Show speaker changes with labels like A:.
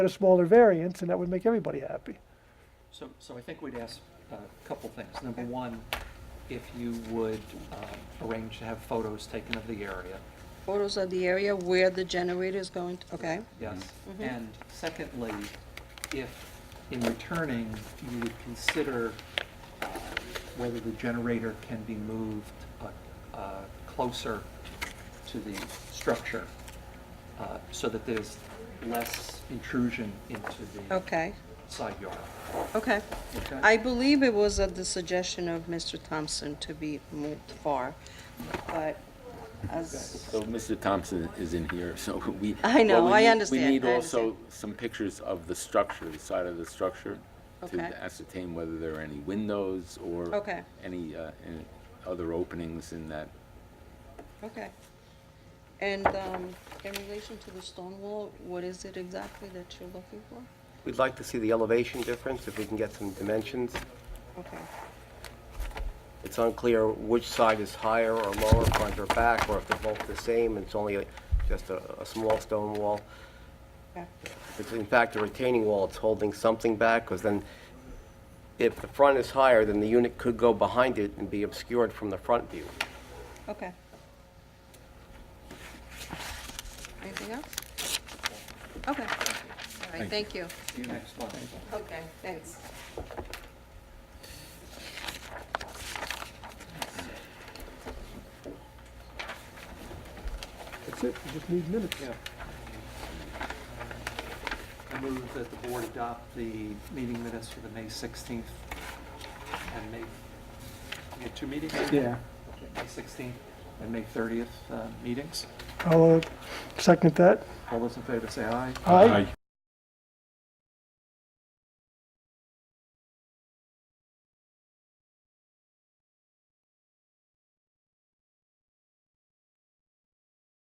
A: a smaller variance, and that would make everybody happy.
B: So, so I think we'd ask uh, a couple things. Number one, if you would um, arrange to have photos taken of the area,
C: Mm-hmm. Photos of the area where the generator is going, to okay?
B: yes?
C: Mm-hmm.
B: And secondly, if in returning, you would consider uh, whether the generator can be moved uh, uh, closer to the structure uh, so that there's less intrusion into the
C: Okay,
B: side yard.
C: okay.
B: Okay?
C: I believe it was at the suggestion of Mr. Thompson to be moved far, but as,
D: So Mr. Thompson is in here, so we.
C: I know,
D: well, we
C: I
D: need-
C: understand,
D: We need
C: I
D: also
C: understand.
D: some pictures of the structure, the side of the structure,
C: Okay.
D: to ascertain whether there are any windows or.
C: Okay.
D: Any uh, any other openings in that.
C: okay. And um, in relation to the stone wall, what is it exactly that you're looking for?
E: We'd like to see the elevation difference, if we can get some dimensions.
C: Okay,
E: It's unclear which side is higher or lower, front or back, or if they're both the same, it's only a- just a a small stone wall.
C: okay,
E: If it's in fact a retaining wall, it's holding something back, because then if the front is higher, then the unit could go behind it and be obscured from the front view.
C: okay. Anything else? Okay, all right, thank you.
B: See you next month.
C: Okay, thanks.
A: That's it, we just need minutes.
B: Yeah. I move that the board adopt the meeting minutes for the May 16th and May, we had two meetings? Yeah. May 16th and May 30th uh, meetings.
A: I'll uh, second that.
B: All those in favor say aye.
A: Aye.